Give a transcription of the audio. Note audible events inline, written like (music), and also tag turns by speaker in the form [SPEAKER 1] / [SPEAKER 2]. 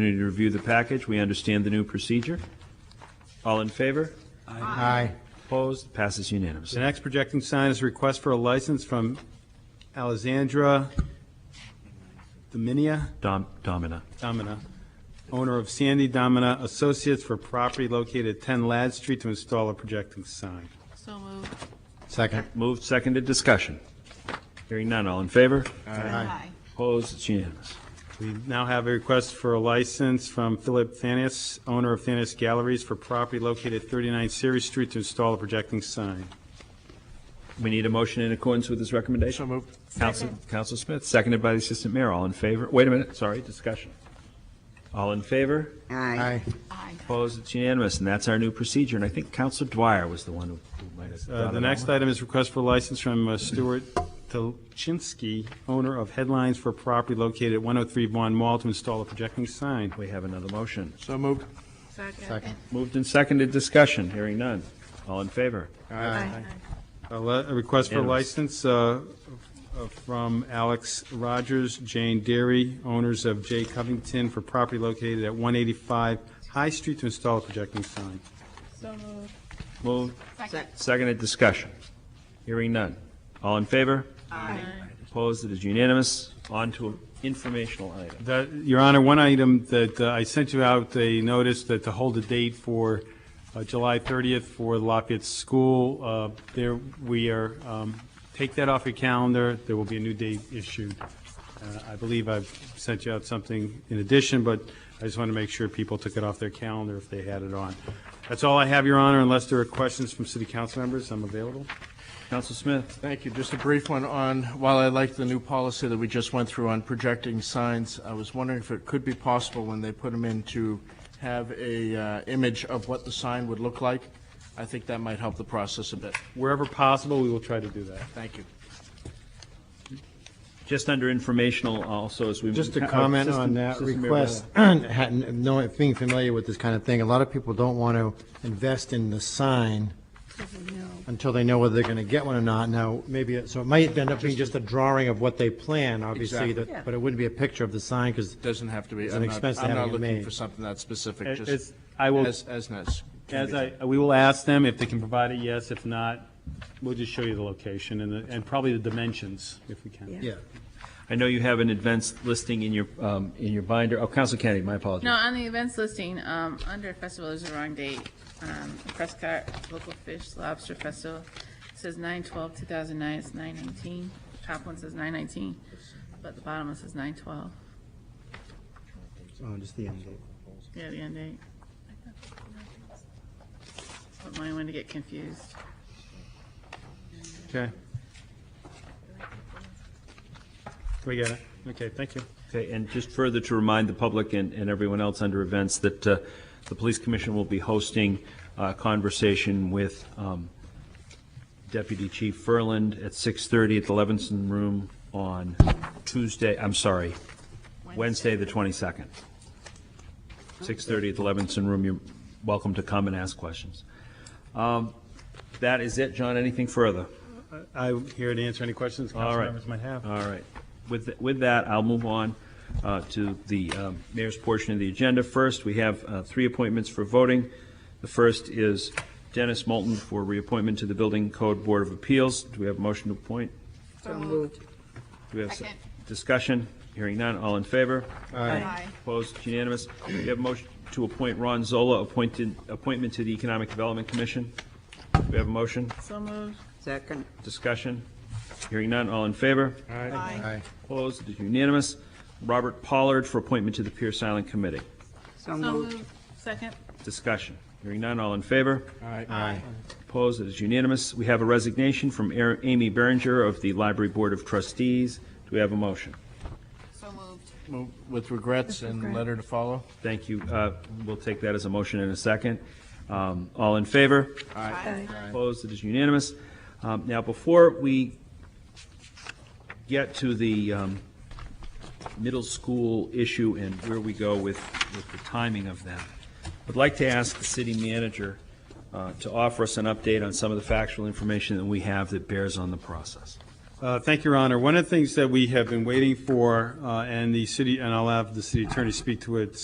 [SPEAKER 1] opportunity to review the package. We understand the new procedure. All in favor?
[SPEAKER 2] Aye.
[SPEAKER 1] Opposed? Passes unanimously.
[SPEAKER 3] The next projecting sign is a request for a license from Alexandra Dominia,
[SPEAKER 1] Dom- Domina.
[SPEAKER 3] Domina, owner of Sandy Domina Associates for property located at 10 Ladd Street to install a projecting sign.
[SPEAKER 4] So moved.
[SPEAKER 2] Second.
[SPEAKER 1] Moved, seconded, discussion. Hearing none, all in favor?
[SPEAKER 4] Aye.
[SPEAKER 1] Opposed? It's unanimous.
[SPEAKER 3] We now have a request for a license from Philip Thanis, owner of Thanis Galleries for property located at 39 Series Street to install a projecting sign.
[SPEAKER 1] We need a motion in accordance with this recommendation. So moved. Counsel, Counsel Smith, seconded by the Assistant Mayor, all in favor? Wait a minute, sorry, discussion. All in favor?
[SPEAKER 2] Aye.
[SPEAKER 4] Aye.
[SPEAKER 1] Opposed? It's unanimous, and that's our new procedure, and I think Counsel Dwyer was the one who who might have.
[SPEAKER 3] Uh,
[SPEAKER 1] thought
[SPEAKER 3] The
[SPEAKER 1] of that
[SPEAKER 3] next
[SPEAKER 1] one.
[SPEAKER 3] item is request for license from uh, Stuart Tolchinsky, owner of Headlines for property located at 103 Vaughn Mall to install a projecting sign.
[SPEAKER 1] We have another motion.
[SPEAKER 2] So moved.
[SPEAKER 4] Second.
[SPEAKER 2] Second.
[SPEAKER 1] Moved and seconded, discussion, hearing none, all in favor?
[SPEAKER 4] Aye.
[SPEAKER 3] A Uh, le- a request for a
[SPEAKER 1] Unanimous.
[SPEAKER 3] license uh, uh, from Alex Rogers, Jane Derry, owners of J. Covington for property located at 185 High Street to install a projecting sign.
[SPEAKER 4] So moved.
[SPEAKER 1] Moved,
[SPEAKER 4] Second.
[SPEAKER 1] seconded, discussion. Hearing none, all in favor?
[SPEAKER 4] Aye.
[SPEAKER 1] Opposed? It is unanimous. On to informational item.
[SPEAKER 3] That- Your Honor, one item that uh, I sent you out a notice that to hold a date for uh, July 30th for Lafayette School, uh, there, we are, um, take that off your calendar, there will be a new date issued. Uh, I believe I've sent you out something in addition, but I just want to make sure people took it off their calendar if they had it on. That's all I have, Your Honor, unless there are questions from city council members, I'm available.
[SPEAKER 1] Counsel Smith,
[SPEAKER 5] Thank you. Just a brief one on, while I like the new policy that we just went through on projecting signs, I was wondering if it could be possible when they put them in to have a uh, image of what the sign would look like. I think that might help the process a bit.
[SPEAKER 3] Wherever possible, we will try to do that.
[SPEAKER 5] Thank you.
[SPEAKER 1] just under informational also as we. uh,
[SPEAKER 2] Just to comment
[SPEAKER 1] Assistant-
[SPEAKER 2] on that
[SPEAKER 1] Assistant Mayor
[SPEAKER 2] request,
[SPEAKER 1] Barra.
[SPEAKER 2] (clears throat) hadn't- knowing, being familiar with this kind of thing, a lot of people don't want to invest in the sign until they know whether they're going to get one or not. Now, maybe, it- so it might end up being just a drawing of what they plan, obviously,
[SPEAKER 5] Exactly.
[SPEAKER 2] that- but it wouldn't be a picture of the sign because
[SPEAKER 5] Doesn't have to be.
[SPEAKER 2] It's
[SPEAKER 5] I'm
[SPEAKER 2] an
[SPEAKER 5] not-
[SPEAKER 2] expense to have
[SPEAKER 5] I'm
[SPEAKER 2] it
[SPEAKER 5] not looking
[SPEAKER 2] made.
[SPEAKER 5] for something that specific,
[SPEAKER 3] It-
[SPEAKER 5] just
[SPEAKER 3] it's- I will-
[SPEAKER 5] as, as nice.
[SPEAKER 3] As I, we will ask them if they can provide a yes, if not, we'll just show you the location and, the- and probably the dimensions, if we can.
[SPEAKER 2] Yeah.
[SPEAKER 1] I know you have an advanced listing in your, um, in your binder. Oh, Counsel Kennedy, my apologies.
[SPEAKER 4] No, on the events listing, um, under festival is the wrong date. Um, Prescott Local Fish Lobster Festival it says nine twelve, two thousand nine, it's nine nineteen. Top one says nine nineteen, but the bottom one says nine twelve.
[SPEAKER 2] Oh, just the end.
[SPEAKER 4] Yeah, the end date. But mine went to get confused.
[SPEAKER 3] Okay. We got it. Okay, thank you.
[SPEAKER 1] Okay, and just further to remind the public and, and everyone else under events that uh, the Police Commission will be hosting a conversation with um, Deputy Chief Furland at 6:30 at the Levinson Room on Tuesday, I'm sorry, Wednesday, the 22nd. 6:30 at the Levinson Room. You're welcome to come and ask questions. Um, That is it, John. Anything further?
[SPEAKER 3] I'm here to answer any questions
[SPEAKER 1] All
[SPEAKER 3] council
[SPEAKER 1] right.
[SPEAKER 3] members might have.
[SPEAKER 1] All right. With, th- with that, I'll move on uh, to the um, mayor's portion of the agenda. First, we have uh, three appointments for voting. The first is Dennis Moulton for reappointment to the Building Code Board of Appeals. Do we have a motion to appoint?
[SPEAKER 4] So moved.
[SPEAKER 1] Do we have s-
[SPEAKER 4] Second.
[SPEAKER 1] discussion? Hearing none, all in favor?
[SPEAKER 4] Aye.
[SPEAKER 1] Opposed, It's unanimous. We have a motion to appoint Ron Zola, appointed, appointment to the Economic Development Commission. Do we have a motion?
[SPEAKER 4] So moved.
[SPEAKER 6] Second.
[SPEAKER 1] Discussion? Hearing none, all in favor?
[SPEAKER 2] Aye.
[SPEAKER 1] Opposed, it is unanimous. Robert Pollard for appointment to the Pierce Island Committee.
[SPEAKER 6] So
[SPEAKER 4] So
[SPEAKER 6] moved.
[SPEAKER 4] moved. Second.
[SPEAKER 1] Discussion. Hearing none, all in favor?
[SPEAKER 2] Aye.
[SPEAKER 1] Opposed, it is unanimous. We have a resignation from Ar- Amy Berenger of the Library Board of Trustees. Do we have a motion?
[SPEAKER 4] So moved.
[SPEAKER 5] Move With regrets and letter to follow.
[SPEAKER 1] Thank you. Uh, We'll take that as a motion in a second. Um, All in favor?
[SPEAKER 4] Aye.
[SPEAKER 1] Opposed, it is unanimous. Um, Now, before we get to the um, middle school issue and where we go with, with the timing of them, I'd like to ask the city manager uh, to offer us an update on some of the factual information that we have that bears on the process.
[SPEAKER 3] Uh, Thank you, Your Honor. One of the things that we have been waiting for, uh, and the city, and I'll have the city attorney speak to it